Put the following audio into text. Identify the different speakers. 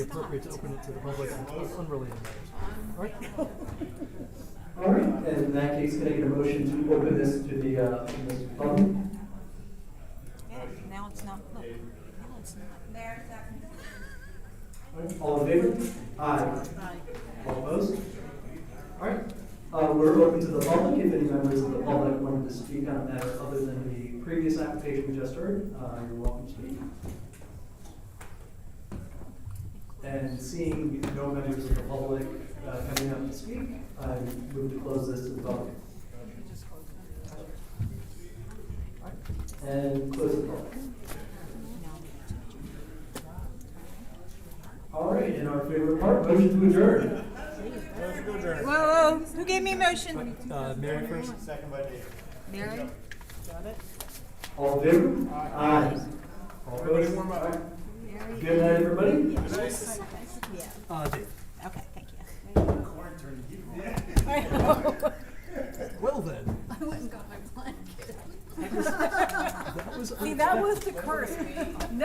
Speaker 1: appropriate to open it to the public on unrelated matters. All right?
Speaker 2: All right, and in that case, can I get a motion to open this to the, uh, to the public?
Speaker 3: Yeah, now it's not, look, now it's not. There,
Speaker 2: All in favor? Aye.
Speaker 3: Aye.
Speaker 2: All opposed? All right, uh, we're open to the public, if any members of the public wanted to speak on a matter other than the previous application we just heard, uh, you're welcome to speak. And seeing no members of the public, uh, coming up to speak, I move to close this to the public. And close the public. All right, and our favorite part, motion to adjourn.
Speaker 3: Whoa, whoa, who gave me a motion?
Speaker 1: Uh, Mary first?
Speaker 3: Mary?
Speaker 2: All in favor? Aye. All opposed?
Speaker 3: Mary?
Speaker 2: Good night, everybody.
Speaker 3: Yeah,
Speaker 1: Uh, Dave.
Speaker 3: okay, thank you.
Speaker 1: Well then,
Speaker 3: I went and got my blanket.
Speaker 1: that was
Speaker 3: See, that
Speaker 1: unexpected.
Speaker 3: was the curse.